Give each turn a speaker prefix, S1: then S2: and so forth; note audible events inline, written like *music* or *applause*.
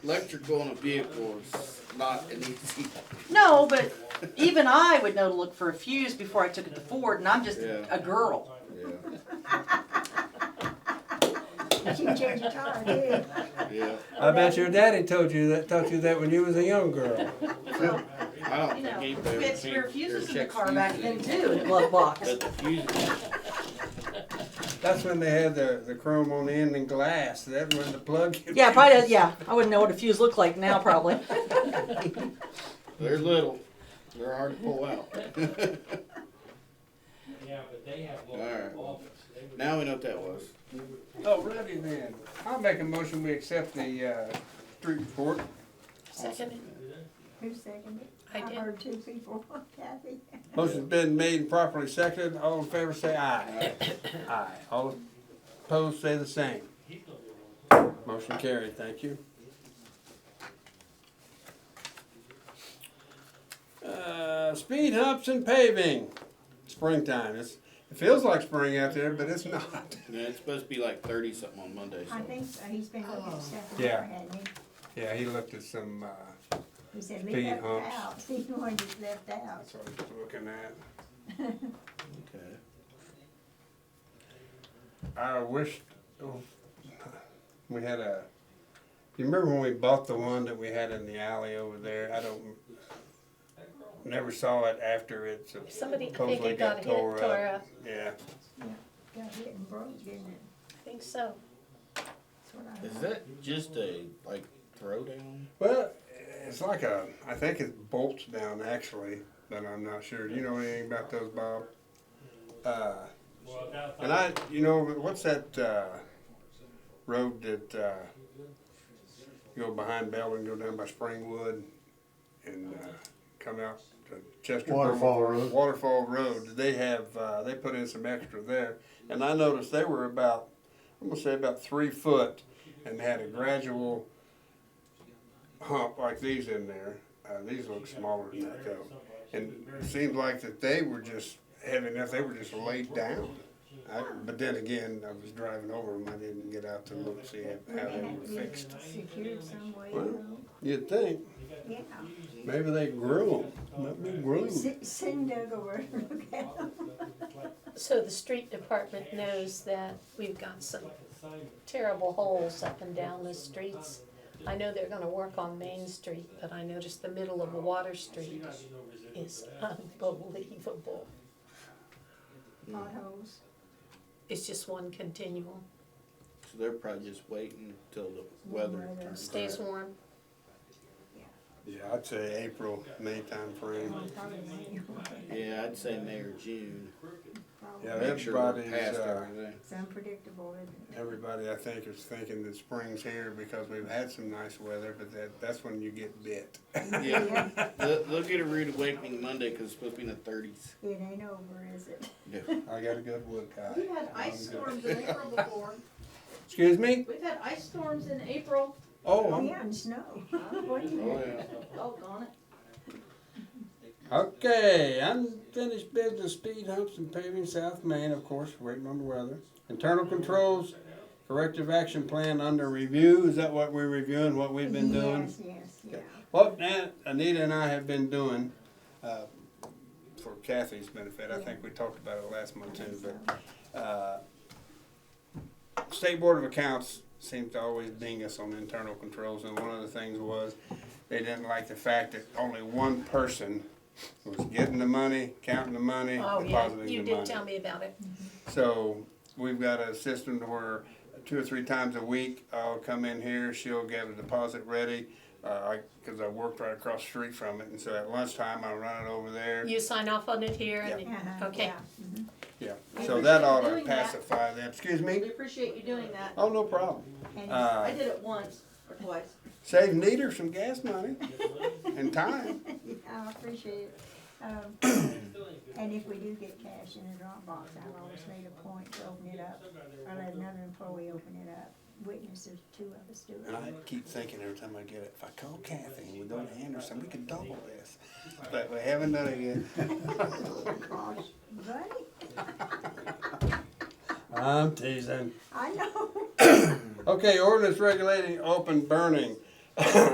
S1: electrical on a vehicle is not an easy.
S2: No, but even I would know to look for a fuse before I took it to Ford, and I'm just
S1: Yeah.
S2: a girl.
S1: Yeah,
S3: She changed her tire, did.
S1: yeah.
S4: I bet your daddy told you that taught you that when you was a young girl.
S1: I don't
S2: You
S1: think
S2: know,
S1: anybody
S2: we
S1: ever
S2: had
S1: changed
S2: spare
S1: their
S2: fuses in the
S1: check
S2: car back then
S1: fuses.
S2: too, in
S1: *laughs*
S2: a glove box.
S1: But the fuses,
S4: That's when they had the, the chrome on the end and glass. That when the plug.
S5: Yeah, probably. Yeah, I wouldn't know what a fuse looked like now, probably.
S1: they're little, they're hard to pull out. *laughs*
S6: Yeah, but they have
S1: Alright.
S6: local office. They would-
S1: Now we know what that was.
S4: Oh, ready then. I'll make a motion. We accept the uh, street report.
S7: Second.
S3: Who seconded?
S7: I did.
S3: heard two people, Kathy.
S4: Motion's been made and properly seconded. All in favor, say aye. Aye. All opposed, say the same. Motion carried. Thank you. Uh, speed humps and paving. Springtime. It's, it feels like spring out there, but it's not.
S1: And it's supposed to be like thirty something on Monday, so.
S3: I think so, he's been looking at stuff in
S4: Yeah.
S3: there, hadn't he?
S4: Yeah, he looked at some. Uh,
S3: He said,
S4: Speed
S3: leave that
S4: humps.
S3: out, *laughs* he's the one that's left out.
S4: That's what I was looking at.
S1: Okay.
S4: I wish oh, we had a. You remember when we bought the one that we had in the alley over there? I don't. Never saw it after it. So
S7: Somebody, I think
S4: supposedly
S7: it got hit, tore up.
S4: Yeah.
S3: Got hit and broke, didn't it?
S7: I think so.
S3: That's what I
S1: Is
S3: heard.
S1: that just a, like, throwdown?
S4: Well, it's like a. I think it bolts down actually, but I'm not sure. Do you know anything about those, Bob? Uh,
S6: Well, now,
S4: and I, you know, what's that uh, road that uh, you go behind Bell and go down by Springwood and uh, come out to Chester?
S8: Waterfall Road.
S4: Waterfall Road. They have uh, they put in some extra there, and I noticed they were about I'm gonna say about three foot, and they had a gradual hump like these in there. Uh, these look smaller than that though. And it seemed like that they were just heavy enough, they were just laid down. I, but then again, I was driving over them, I didn't get out to look, see how how
S3: They
S4: they
S3: had
S4: were
S3: to be
S4: fixed.
S3: secured some way,
S4: Well.
S3: you
S4: You'd think,
S3: know? yeah.
S4: maybe they grew them, maybe grew 'em.
S3: S- Send Doug over and look at them.
S7: So the street department knows that we've got some terrible holes up and down the streets. I know they're gonna work on Main Street, but I noticed the middle of Water Street is unbelievable.
S3: potholes.
S7: It's just one continual,
S1: So they're probably just waiting till the weather
S3: Weather.
S1: turns.
S7: stays warm.
S4: Yeah, I'd say April, May timeframe.
S3: Probably manual.
S1: Yeah, I'd say May or June.
S4: Yeah,
S1: Make sure we're
S4: everybody's,
S1: past
S4: uh,
S1: everything.
S3: It's unpredictable, isn't it?
S4: Everybody, I think, is thinking that spring's here because we've had some nice weather, but that, that's when you get bit.
S1: Yeah,
S2: *laughs*
S1: they'll, they'll get a rude awakening Monday because it's supposed to be in the thirties.
S3: It ain't over, is it?
S4: I got a good wood
S2: *laughs* We've
S4: guy.
S2: had ice storms in April before.
S4: Excuse me?
S2: We've had ice storms in April.
S4: Oh, I'm-
S3: Yeah, and snow. *laughs* What do you
S1: Oh, yeah.
S2: Oh, gone it.
S4: okay, unfinished business, speed humps and paving South Main, of course, waiting on the weather. Internal controls, corrective action plan under review, is that what we're reviewing, what we've been doing?
S3: Yes, yes, yeah.
S4: What Nat, Anita and I have been doing, uh, for Kathy's benefit, I think we talked about it last month too, but, uh, State Board of Accounts seems to always ding us on internal controls, and one of the things was, they didn't like the fact that only one person was getting the money, counting the money,
S7: Oh, yeah,
S4: depositing the
S7: you
S4: money.
S7: did tell me about it.
S4: So we've got a system to where two or three times a week, I'll come in here, she'll get a deposit ready. Uh, I, cause I worked right across the street from it, and so at lunchtime, I run it over there.
S7: You sign off on it here and,
S3: Uh-huh,
S7: okay,
S3: yeah.
S4: Yeah,
S2: We
S4: so that
S2: appreciate
S4: ought
S2: you
S4: to
S2: doing that.
S4: pacify them. Excuse
S2: We
S4: me?
S2: appreciate you doing that.
S4: Oh, no problem.
S3: And
S2: I
S4: Uh,
S2: did it once or twice.
S4: save Nita some gas money and time.
S3: I appreciate it. Um, And if we do get cash in the Dropbox, I've always made a point to open it up, or let another employee open it up. Witnesses, two of us do
S4: And I
S3: it.
S4: keep thinking every time I get it, if I call Kathy and we go to Anderson, we could double this. But we haven't done it yet.
S3: Gosh, buddy,
S4: I'm teasing.
S3: I know.
S4: Okay, ordinance regulating open burning.